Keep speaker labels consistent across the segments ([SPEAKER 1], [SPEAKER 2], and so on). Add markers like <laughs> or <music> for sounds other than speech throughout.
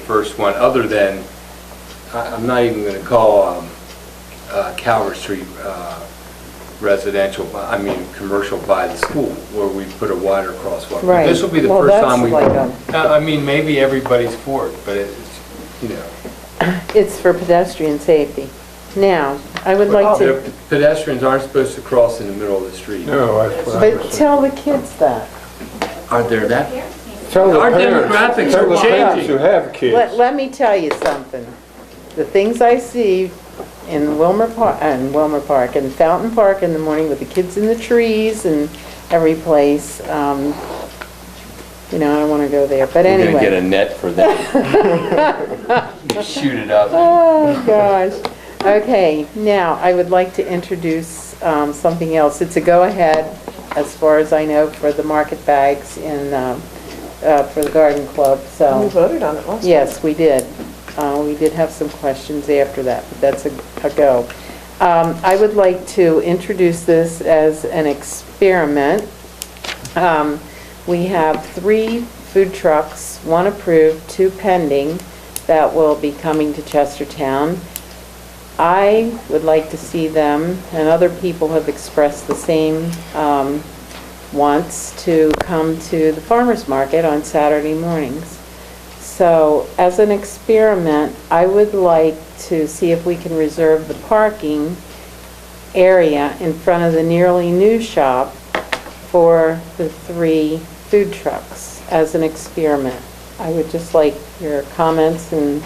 [SPEAKER 1] first one, other than, I- I'm not even going to call um, uh, Calvert Street uh, residential, I mean, commercial by the school, where we put a wider crosswalk.
[SPEAKER 2] Right.
[SPEAKER 1] This will be the
[SPEAKER 2] Well,
[SPEAKER 1] first
[SPEAKER 2] that's
[SPEAKER 1] time we, Uh,
[SPEAKER 2] like a-
[SPEAKER 1] I I mean, maybe everybody's for it, but it's, you know.
[SPEAKER 2] It's for pedestrian safety. Now, I would like
[SPEAKER 1] Their
[SPEAKER 2] to,
[SPEAKER 1] Pedestrians aren't supposed to cross in the middle of the street.
[SPEAKER 3] No, that's what I
[SPEAKER 2] but
[SPEAKER 3] was
[SPEAKER 2] tell the kids that.
[SPEAKER 1] Aren't there that?
[SPEAKER 3] Tell the
[SPEAKER 1] Our
[SPEAKER 3] parents-
[SPEAKER 1] demographics
[SPEAKER 3] tell
[SPEAKER 1] are
[SPEAKER 3] the parents
[SPEAKER 1] changing.
[SPEAKER 3] who have
[SPEAKER 2] Let,
[SPEAKER 3] kids.
[SPEAKER 2] let me tell you something. The things I see in Wilmer Park, in Wilmer Park, in Fountain Park in the morning with the kids in the trees and every place, um, you know, I don't want to go there, but
[SPEAKER 4] We're
[SPEAKER 2] anyway.
[SPEAKER 4] gonna get a net for
[SPEAKER 1] <laughs>
[SPEAKER 2] <laughs>
[SPEAKER 4] that. Shoot it up.
[SPEAKER 2] Oh, gosh. Okay, now, I would like to introduce um, something else. It's a go-ahead, as far as I know, for the market bags in, um, uh, for the garden club, so.
[SPEAKER 5] We voted on it last time.
[SPEAKER 2] Yes, we did. Uh, We did have some questions after that, but that's a a go. Um, I would like to introduce this as an experiment. Um, We have three food trucks, one approved, two pending, that will be coming to Chestertown. I would like to see them, and other people have expressed the same um, wants, to come to the farmer's market on Saturday mornings. So as an experiment, I would like to see if we can reserve the parking area in front of the nearly new shop for the three food trucks as an experiment. I would just like your comments and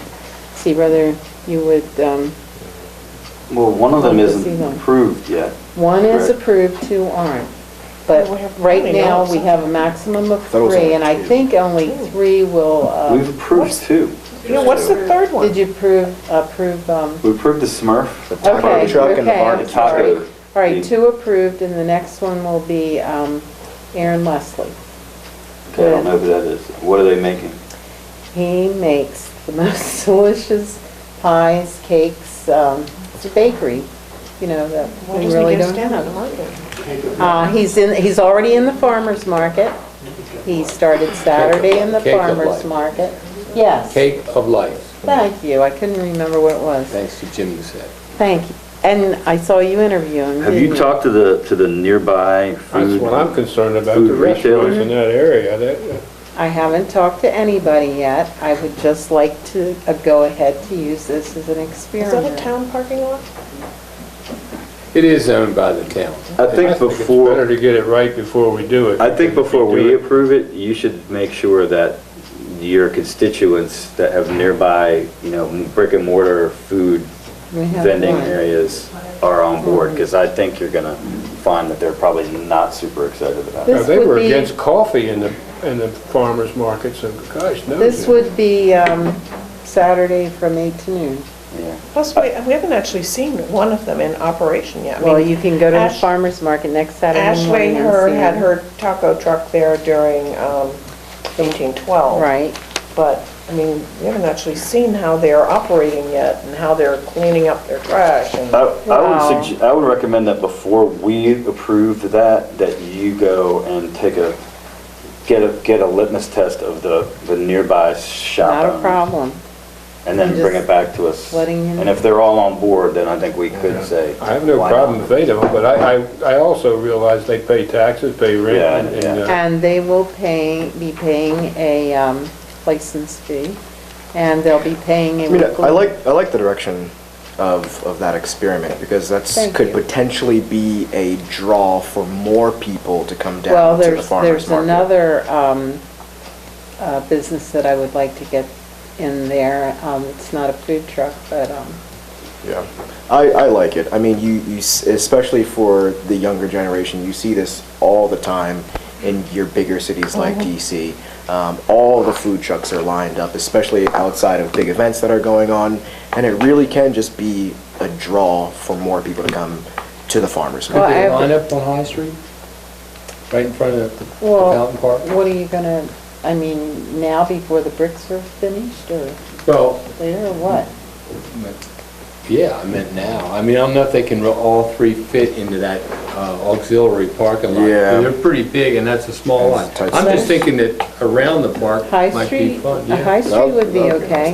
[SPEAKER 2] see whether you would, um,
[SPEAKER 6] Well, one of them
[SPEAKER 2] Like the season.
[SPEAKER 6] isn't approved yet.
[SPEAKER 2] one is
[SPEAKER 6] Correct.
[SPEAKER 2] approved, two aren't. But
[SPEAKER 5] We have
[SPEAKER 2] right
[SPEAKER 5] plenty
[SPEAKER 2] now,
[SPEAKER 5] also.
[SPEAKER 2] we have a maximum of
[SPEAKER 6] Those
[SPEAKER 2] three,
[SPEAKER 6] are
[SPEAKER 2] and I
[SPEAKER 6] two.
[SPEAKER 2] think only three will, uh,
[SPEAKER 6] We've approved two.
[SPEAKER 5] You know, what's the third one?
[SPEAKER 2] did you approve, approve um,
[SPEAKER 6] We approved the Smurf.
[SPEAKER 2] Okay, okay, I'm
[SPEAKER 6] The taco.
[SPEAKER 2] sorry. All right,
[SPEAKER 6] The-
[SPEAKER 2] two approved, and the next one will be um, Aaron Leslie.
[SPEAKER 6] Okay, I don't know who that is. What are they making?
[SPEAKER 2] He makes the <laughs> most delicious pies, cakes, um, it's a bakery, you know, that
[SPEAKER 5] Why
[SPEAKER 2] we
[SPEAKER 5] doesn't
[SPEAKER 2] really
[SPEAKER 5] he get a
[SPEAKER 2] don't
[SPEAKER 5] stand on the
[SPEAKER 2] have.
[SPEAKER 5] market?
[SPEAKER 2] Uh, He's in, he's already in the farmer's market. He started Saturday in the
[SPEAKER 1] Cake of
[SPEAKER 2] farmer's
[SPEAKER 1] life.
[SPEAKER 2] market. Yes,
[SPEAKER 1] Cake of life,
[SPEAKER 2] thank you, I couldn't remember what it was.
[SPEAKER 1] thanks to Jim Doucette.
[SPEAKER 2] Thank you. And I saw you interviewing.
[SPEAKER 6] Have you talked to the, to the nearby
[SPEAKER 3] That's
[SPEAKER 6] food?
[SPEAKER 3] what I'm concerned about,
[SPEAKER 6] food
[SPEAKER 3] the restaurants
[SPEAKER 6] retailer.
[SPEAKER 3] in that area. That-
[SPEAKER 2] I haven't talked to anybody yet. I would just like to uh, go ahead to use this as an
[SPEAKER 5] Is that a
[SPEAKER 2] experiment.
[SPEAKER 5] town parking lot?
[SPEAKER 1] It is owned by the town.
[SPEAKER 6] I think
[SPEAKER 3] it's Better
[SPEAKER 6] before,
[SPEAKER 3] to get it right before we do it.
[SPEAKER 6] I think
[SPEAKER 3] If we
[SPEAKER 6] before
[SPEAKER 3] do
[SPEAKER 6] we
[SPEAKER 3] it-
[SPEAKER 6] approve it, you should make sure that your constituents that have nearby, you know, brick and mortar food
[SPEAKER 2] We have
[SPEAKER 6] vending
[SPEAKER 2] one.
[SPEAKER 6] areas are on board, because I think you're gonna find that they're probably not super excited about it.
[SPEAKER 2] This
[SPEAKER 3] Now, They
[SPEAKER 2] would
[SPEAKER 3] were
[SPEAKER 2] be-
[SPEAKER 3] against coffee in the, in the farmer's market, so gosh, no.
[SPEAKER 2] This would be um, Saturday from 8 to noon.
[SPEAKER 6] Yeah.
[SPEAKER 5] Plus, we we haven't actually seen one of them in operation yet. I
[SPEAKER 2] Well,
[SPEAKER 5] mean,
[SPEAKER 2] you can go to the
[SPEAKER 5] Ash-
[SPEAKER 2] farmer's market next Saturday
[SPEAKER 5] Ashley
[SPEAKER 2] morning. and
[SPEAKER 5] Hearn
[SPEAKER 2] see
[SPEAKER 5] had
[SPEAKER 2] it.
[SPEAKER 5] her taco truck there during um, 1812.
[SPEAKER 2] Right.
[SPEAKER 5] But, I mean, we haven't actually seen how they're operating yet and how they're cleaning up their trash and...
[SPEAKER 6] I I
[SPEAKER 2] Wow.
[SPEAKER 6] would suggest, I would recommend that before we approve that, that you go and take a, get a, get a litmus test of the, the nearby shop.
[SPEAKER 2] Not a
[SPEAKER 5] Um,
[SPEAKER 6] owners,
[SPEAKER 2] problem.
[SPEAKER 6] And then bring it back to us.
[SPEAKER 2] Letting you know.
[SPEAKER 6] And if they're all on board, then I think we could say.
[SPEAKER 3] I have no
[SPEAKER 6] why not?
[SPEAKER 3] problem if they don't, but I, I I also realize they pay taxes, pay
[SPEAKER 6] Yeah,
[SPEAKER 3] rent, and,
[SPEAKER 6] yeah.
[SPEAKER 3] uh,
[SPEAKER 2] And they will pay, be paying a um, license fee, and they'll be paying a
[SPEAKER 7] I mean,
[SPEAKER 2] weekly...
[SPEAKER 7] I like, I like the direction of, of that experiment, because that's,
[SPEAKER 2] Thank
[SPEAKER 7] could
[SPEAKER 2] you.
[SPEAKER 7] potentially be a draw for more people to come
[SPEAKER 2] Well,
[SPEAKER 7] down to the
[SPEAKER 2] there's,
[SPEAKER 7] farmer's
[SPEAKER 2] there's
[SPEAKER 7] market.
[SPEAKER 2] another um, uh, business that I would like to get in there. Um, It's not a food truck, but um,
[SPEAKER 7] Yeah, I, I like it, I mean, you, you, s- especially for the younger generation, you see this all the time in your bigger cities like
[SPEAKER 2] Uh-huh.
[SPEAKER 7] DC. Um, all the food trucks are lined up, especially outside of big events that are going on, and it really can just be a draw for more people to come to the farmer's
[SPEAKER 2] Well,
[SPEAKER 7] market.
[SPEAKER 2] I
[SPEAKER 1] Could they
[SPEAKER 2] have-
[SPEAKER 1] line up on High Street? Right in front of the the
[SPEAKER 2] well,
[SPEAKER 1] Fountain Park?
[SPEAKER 2] what are you gonna, I mean, now before the bricks are finished or
[SPEAKER 1] Well,
[SPEAKER 2] later or what?
[SPEAKER 1] yeah, I meant now. I mean, I don't know if they can ro- all three fit into that uh, auxiliary parking lot.
[SPEAKER 7] Yeah.
[SPEAKER 1] They're pretty big, and that's a small
[SPEAKER 7] That's
[SPEAKER 1] lot.
[SPEAKER 7] tight
[SPEAKER 1] I'm just
[SPEAKER 7] space.
[SPEAKER 1] thinking that around the park
[SPEAKER 2] High
[SPEAKER 1] might be
[SPEAKER 2] Street,
[SPEAKER 1] fun,
[SPEAKER 2] a
[SPEAKER 1] yeah.
[SPEAKER 2] High Street would be
[SPEAKER 7] Okay.
[SPEAKER 2] okay.